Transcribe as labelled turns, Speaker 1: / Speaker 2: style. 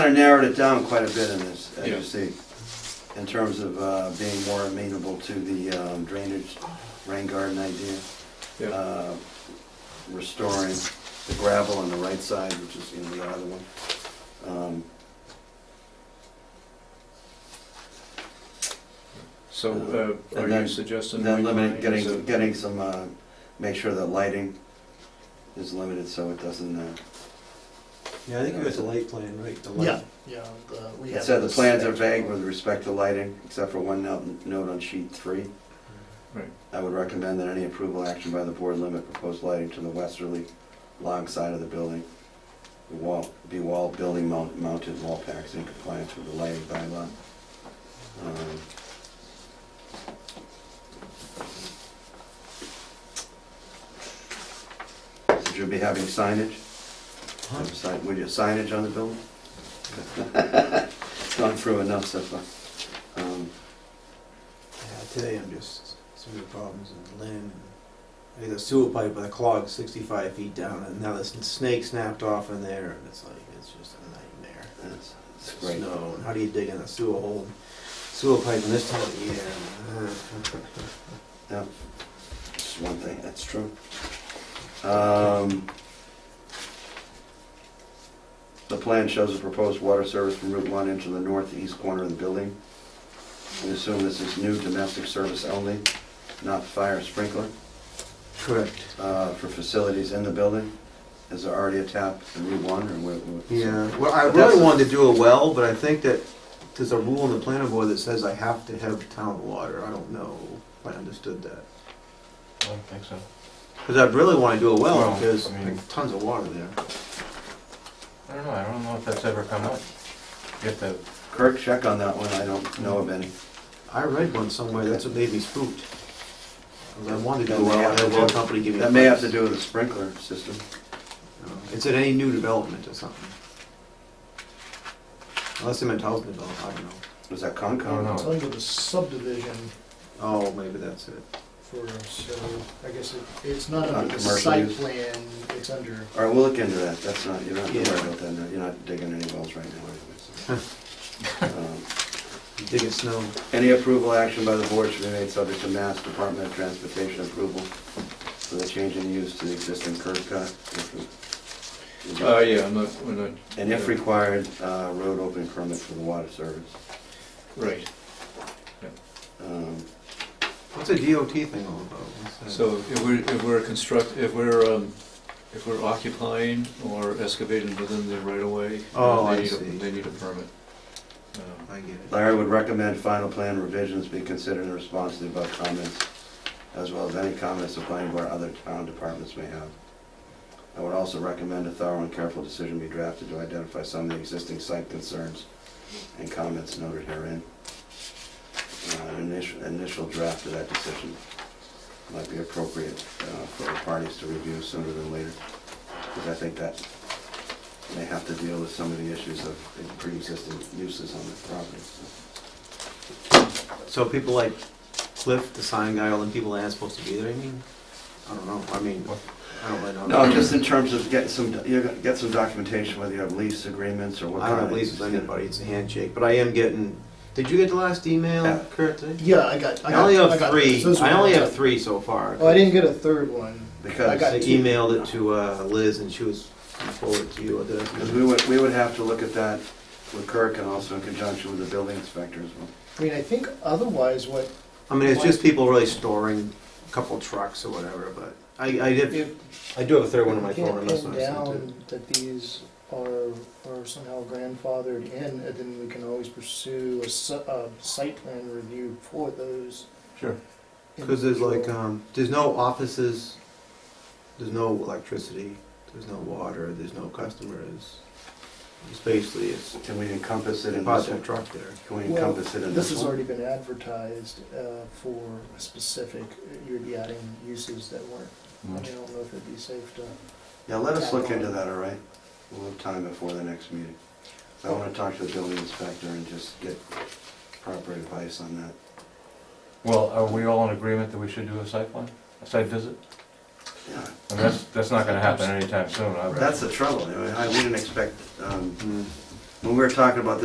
Speaker 1: kind of narrowed it down quite a bit in this, as
Speaker 2: Yeah.
Speaker 1: you see, in terms of uh, being more amenable to the um, drainage, rain garden idea.
Speaker 2: Yeah,
Speaker 1: uh, Restoring the gravel on the right side, which is, you know, the other one. Um,
Speaker 2: so uh,
Speaker 1: And
Speaker 2: are
Speaker 1: then-
Speaker 2: you suggesting?
Speaker 1: And then
Speaker 2: we
Speaker 1: limiting,
Speaker 2: line as a-
Speaker 1: getting, getting some, uh, make sure the lighting is limited so it doesn't, uh,
Speaker 3: Yeah, I think you got the light plan, right? the light.
Speaker 4: Yeah, yeah, the- we
Speaker 1: it
Speaker 4: have.
Speaker 1: said the
Speaker 4: this-
Speaker 1: plans are vague with respect to lighting, except for one note, note on sheet three.
Speaker 3: uh,
Speaker 2: Right.
Speaker 1: I would recommend that any approval action by the board limit proposed lighting to the westerly long side of the building. The Wall, be wall, building mount- mounted wall packs in compliance with the lighting bylaw. Um, Would you be having signage?
Speaker 3: Huh?
Speaker 1: Sign- Would you signage on the building? Gone through enough so far. Um,
Speaker 3: Yeah, Today I'm just, some of the problems in Lynn, and I think the sewer pipe with a clog sixty-five feet down, and now this snake snapped off in there, and it's like, it's just a nightmare.
Speaker 1: That's, that's great.
Speaker 3: Snow, and how do you dig in a sewer hole, sewer pipe in this time of year? and, uh,
Speaker 1: That's one thing, that's true. Um, The plan shows a proposed water service from Route 1 into the northeast corner of the building. We assume this is new domestic service only, not fire sprinkler,
Speaker 3: Correct.
Speaker 1: uh, for facilities in the building. Is there already a tap in Route 1 or where- where?
Speaker 3: Yeah, well, I
Speaker 1: But that's-
Speaker 3: really wanted to do a well, but I think that there's a rule in the planning board that says I have to have town water. I don't know if I understood that.
Speaker 5: I don't think so.
Speaker 3: Because I really want to do a well
Speaker 5: Well,
Speaker 3: because
Speaker 5: I mean-
Speaker 3: there's tons of water there.
Speaker 5: I don't know, I don't know if that's ever come up. You have to,
Speaker 1: Kirk, check on that one, I don't know of any.
Speaker 3: I read one somewhere, that's what made me spooked. 'Cause I wanted to
Speaker 1: That
Speaker 3: do
Speaker 1: may
Speaker 3: a well, I
Speaker 1: have
Speaker 3: had a
Speaker 1: to
Speaker 3: well
Speaker 1: do-
Speaker 3: company give me. a
Speaker 1: That may have to
Speaker 3: price.
Speaker 1: do with the sprinkler system.
Speaker 3: No, It's at any new development or something. Unless they meant housing development, I don't know.
Speaker 1: Was that
Speaker 5: I don't
Speaker 1: Concom?
Speaker 5: know.
Speaker 4: It's under the subdivision
Speaker 3: Oh, maybe that's it.
Speaker 4: for, so I guess it, it's not under the
Speaker 1: Commercial
Speaker 4: site
Speaker 1: use.
Speaker 4: plan, it's under,
Speaker 1: All right, we'll look into that, that's not, you're not worried
Speaker 3: Yeah.
Speaker 1: about that, you're not digging any wells right now anyway. so. Um,
Speaker 3: You Dig in snow.
Speaker 1: Any approval action by the board should be made subject to Mass Department of Transportation approval for the change in use to the existing curb cut. if re-
Speaker 2: Uh, yeah, I'm not, we're not,
Speaker 1: And if required, uh, road opening permit for the water service.
Speaker 2: right,
Speaker 1: Um,
Speaker 3: What's a DOT thing all about? What's that?
Speaker 2: so if we're, if we're construct, if we're, um, if we're occupying or excavating within the right of way.
Speaker 3: Oh, I
Speaker 2: they need a-
Speaker 3: see.
Speaker 2: They need a permit. Um,
Speaker 3: I get it.
Speaker 1: Larry would recommend final plan revisions be considered in response to the above comments, as well as any comments the planning board or other town departments may have. I would also recommend a thorough and careful decision be drafted to identify some of the existing site concerns and comments noted herein. Uh, An initial, initial draft of that decision might be appropriate uh, for the parties to review sooner than later, because I think that may have to deal with some of the issues of pre-existing uses on the property.
Speaker 3: So people like Cliff, the sign guy, all the people that aren't supposed to be there, I mean, I don't know, I mean, I don't really know.
Speaker 1: No, just in terms of getting some, you know, get some documentation, whether you have lease agreements or what
Speaker 3: I
Speaker 1: kind of.
Speaker 3: don't have leases with anybody, it's a handshake, but I am getting, did you get the last email,
Speaker 1: Yeah.
Speaker 3: Kurt? today?
Speaker 4: yeah, I got.
Speaker 3: I
Speaker 4: got-
Speaker 3: only
Speaker 4: I
Speaker 3: have
Speaker 4: got
Speaker 3: three,
Speaker 4: those. Those
Speaker 3: I
Speaker 4: were
Speaker 3: only
Speaker 4: all
Speaker 3: have
Speaker 4: done.
Speaker 3: three so far.
Speaker 4: Oh, I didn't get a third one. I
Speaker 1: Because,
Speaker 3: I
Speaker 4: got two.
Speaker 3: emailed it to uh, Liz and she was forwarded to you, or did I?
Speaker 1: because we would, we would have to look at that with Kirk and also in conjunction with the building inspector as well.
Speaker 4: I mean, I think otherwise what,
Speaker 3: I mean, it's just people really storing a couple trucks or whatever, but I, I did,
Speaker 4: if
Speaker 3: I do have a third one on my
Speaker 4: you
Speaker 3: phone,
Speaker 4: can't
Speaker 3: I'm not
Speaker 4: pin
Speaker 3: sure I sent it.
Speaker 4: down that these are, are somehow grandfathered in, and then we can always pursue a, s- a site plan review for those.
Speaker 5: Sure.
Speaker 3: Cause there's like,
Speaker 4: individual-
Speaker 3: um, there's no offices, there's no electricity, there's no water, there's no customers. It's basically, it's
Speaker 1: Can we encompass it in this
Speaker 3: project
Speaker 1: one?
Speaker 3: truck there.
Speaker 1: Can we
Speaker 4: Well,
Speaker 1: encompass it in this
Speaker 4: This has
Speaker 1: one?
Speaker 4: already been advertised uh, for a specific, you would be adding uses that weren't,
Speaker 1: Mm-hmm.
Speaker 4: I mean, I don't know if it'd be safe to.
Speaker 1: Yeah, let us look into that, all right? We'll have time before the next meeting. So I
Speaker 4: Oh.
Speaker 1: want to talk to the building inspector and just get proper advice on that.
Speaker 5: well, are we all in agreement that we should do a site plan, a site visit?
Speaker 1: Yeah,
Speaker 5: I mean, that's, that's not gonna happen anytime soon. I would-
Speaker 3: Mm-hmm.
Speaker 1: That's the trouble, I mean, I- we didn't expect, um, when we were talking about this